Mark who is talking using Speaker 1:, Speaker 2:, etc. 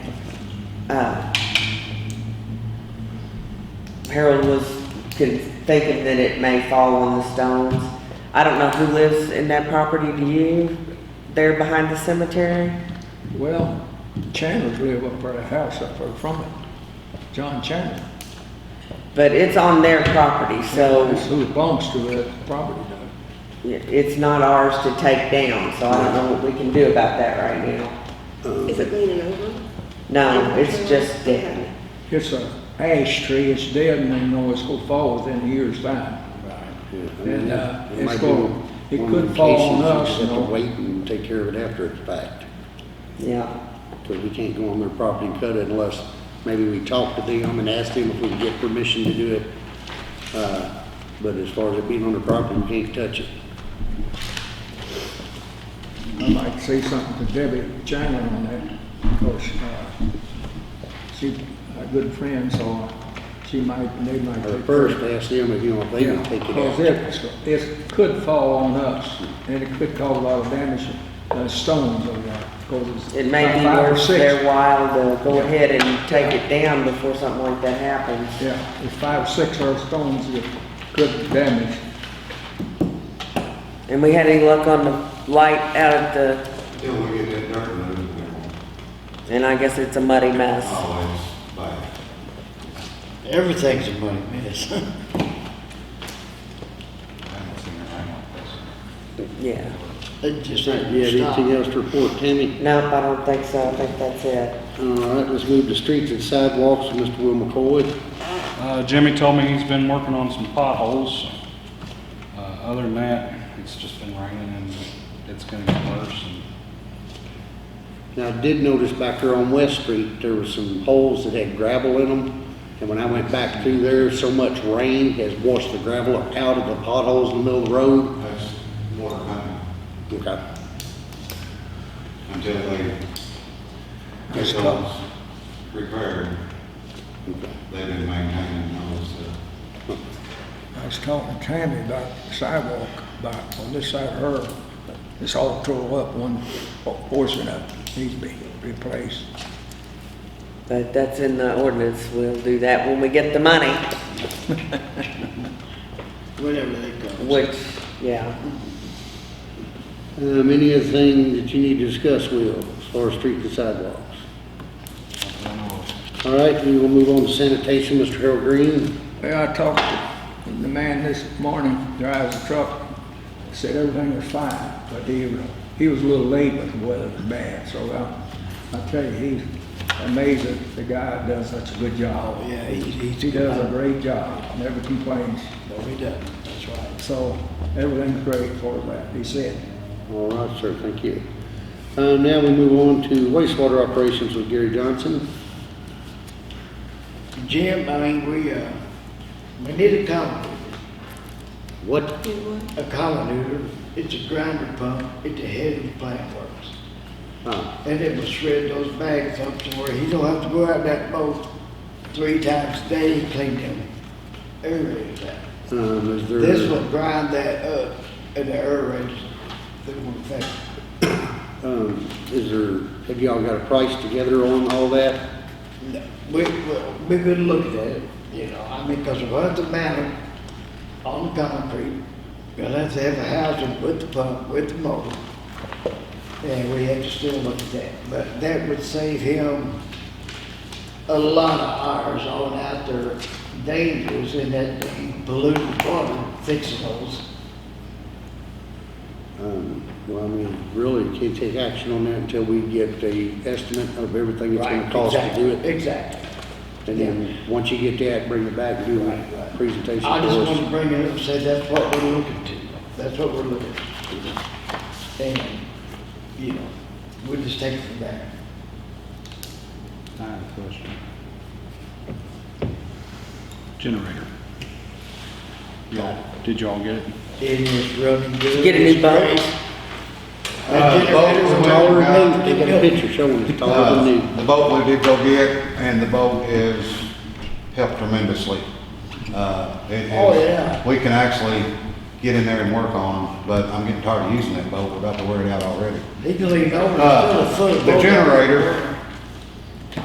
Speaker 1: uh, Harold was con- thinking that it may fall on the stones. I don't know who lives in that property, do you? There behind the cemetery?
Speaker 2: Well, Chandler's live up by the house up there from it. John Chandler.
Speaker 1: But it's on their property, so
Speaker 2: That's who belongs to that property though.
Speaker 1: i- it's not ours to take down, so I don't know what we can do about that right now.
Speaker 3: Is it leaning over?
Speaker 1: No, it's just dead.
Speaker 3: Okay.
Speaker 2: It's a ash tree, it's dead and they know it's gonna fall within a year's time. And, uh,
Speaker 4: It
Speaker 2: it's
Speaker 4: might be
Speaker 2: gonna- it
Speaker 4: one of
Speaker 2: could
Speaker 4: the
Speaker 2: fall
Speaker 4: cases
Speaker 2: on
Speaker 4: you
Speaker 2: us,
Speaker 4: just
Speaker 2: you
Speaker 4: Have
Speaker 2: know.
Speaker 4: to wait and take care of it after it's fact,
Speaker 1: Yeah.
Speaker 4: because we can't go on their property and cut it unless maybe we talk to them and ask them if we can get permission to do it. Uh, But as far as it being on their property, we can't touch it.
Speaker 2: I'd like to say something to Debbie Chandler on that, because, uh, she's a good friend, so she might, they might.
Speaker 4: Or
Speaker 2: take-
Speaker 4: first, ask them if you want, they
Speaker 2: Yeah,
Speaker 4: can take it
Speaker 2: because
Speaker 4: out.
Speaker 2: it, it could fall on us, and it could cause a lot of damage, uh, stones or that, because it's.
Speaker 1: It may be
Speaker 2: five or
Speaker 1: worth
Speaker 2: six.
Speaker 1: their while to go ahead and take it down before something like that happens.
Speaker 2: Yeah, it's five, or six or stones that could damage.
Speaker 1: And we had any luck on the light out at the,
Speaker 5: Till we get that dirt moved, then we'll
Speaker 1: and I guess it's a muddy mess.
Speaker 5: always buy it.
Speaker 6: Everything's a money mess.
Speaker 1: Yeah.
Speaker 6: It just
Speaker 4: Do you
Speaker 6: ain't
Speaker 4: have anything
Speaker 6: stopped.
Speaker 4: else to report, Tammy? Uh,
Speaker 1: Nope, I don't think so. I think that's it.
Speaker 4: All right, let's move to streets and sidewalks, Mr. Will McCoy.
Speaker 7: Uh, Jimmy told me he's been working on some potholes. Uh, other than that, it's just been raining and it's gonna get worse. and-
Speaker 4: Now, I did notice back there on West Street, there were some holes that had gravel in them. And when I went back through there, so much rain has washed the gravel out of the potholes in the middle of the road.
Speaker 5: That's water coming
Speaker 4: Okay.
Speaker 5: until they get those repaired. They've been maintaining those, uh,
Speaker 2: I was talking to Tammy about the sidewalk, about on this side of her, it's all tore up, one portion of it needs to be replaced.
Speaker 1: But that's in the ordinance. We'll do that when we get the money,
Speaker 6: Whenever they go.
Speaker 1: which, yeah.
Speaker 4: Um, any other thing that you need to discuss, Will, as far as streets and sidewalks?
Speaker 7: I don't know if-
Speaker 4: All right, we will move on to sanitation, Mr. Harold Green.
Speaker 2: Well, I talked to the man this morning, drives a truck, said everything was fine, but he, was- he was a little late, but the weather was bad, so uh, I, I tell you, he's amazed that the guy does such a good job.
Speaker 6: Yeah, he- he's
Speaker 2: He
Speaker 6: a
Speaker 2: does a
Speaker 6: good-
Speaker 2: great job, never complains,
Speaker 6: No, he doesn't. That's right.
Speaker 2: so everything's great for that, he said.
Speaker 4: All right, sir, thank you. Uh, now we move on to wastewater operations with Gary Johnson.
Speaker 6: Jim, I mean, we, uh, we need a colony,
Speaker 4: What?
Speaker 6: a colony. It's a grinder pump at the head of the plant works.
Speaker 4: Uh,
Speaker 6: And it will shred those bags up to where he don't have to go out that boat three times a day, he clean them. Aerate that.
Speaker 4: um, is there?
Speaker 6: This will grind that up and the aerate, it will affect.
Speaker 4: Um, is there, have y'all got a price together on all that?
Speaker 6: No, We, we- we've been looking at it, you know, I mean, because if it's a mountain on the concrete, we'll have to have a housing with the pump, with the motor. And we have to still look at that, but that would save him a lot of hours on out there dangerous in that polluted water fixing those.
Speaker 4: Um, well, I mean, really can't take action on that until we get the estimate of everything it's gonna
Speaker 6: Right,
Speaker 4: cost to do
Speaker 6: exactly,
Speaker 4: it.
Speaker 6: Exactly.
Speaker 4: And then, once you get that, bring it back and do
Speaker 6: Right,
Speaker 4: a
Speaker 6: right.
Speaker 4: presentation
Speaker 6: I just
Speaker 4: for
Speaker 6: want to
Speaker 4: us.
Speaker 6: bring it up and say that's what we're looking to, that's what we're looking to. And, you know, we'll just take it from there.
Speaker 7: I have a question. Generator. Y'all, did y'all get it?
Speaker 6: It is running good.
Speaker 1: Get a new boat.
Speaker 5: Uh,
Speaker 6: That
Speaker 5: boat
Speaker 6: generator's
Speaker 5: was
Speaker 4: Taller
Speaker 6: taller
Speaker 4: than new,
Speaker 6: than
Speaker 4: they got a picture showing it's taller than new.
Speaker 5: Uh, The boat we did go get, and the boat is helped tremendously. Uh, it- it-
Speaker 6: Oh, yeah.
Speaker 5: We can actually get in there and work on them, but I'm getting tired of using that boat. We're about to wear it out already.
Speaker 6: He can lean over,
Speaker 5: Uh,
Speaker 6: still a foot.
Speaker 5: The generator,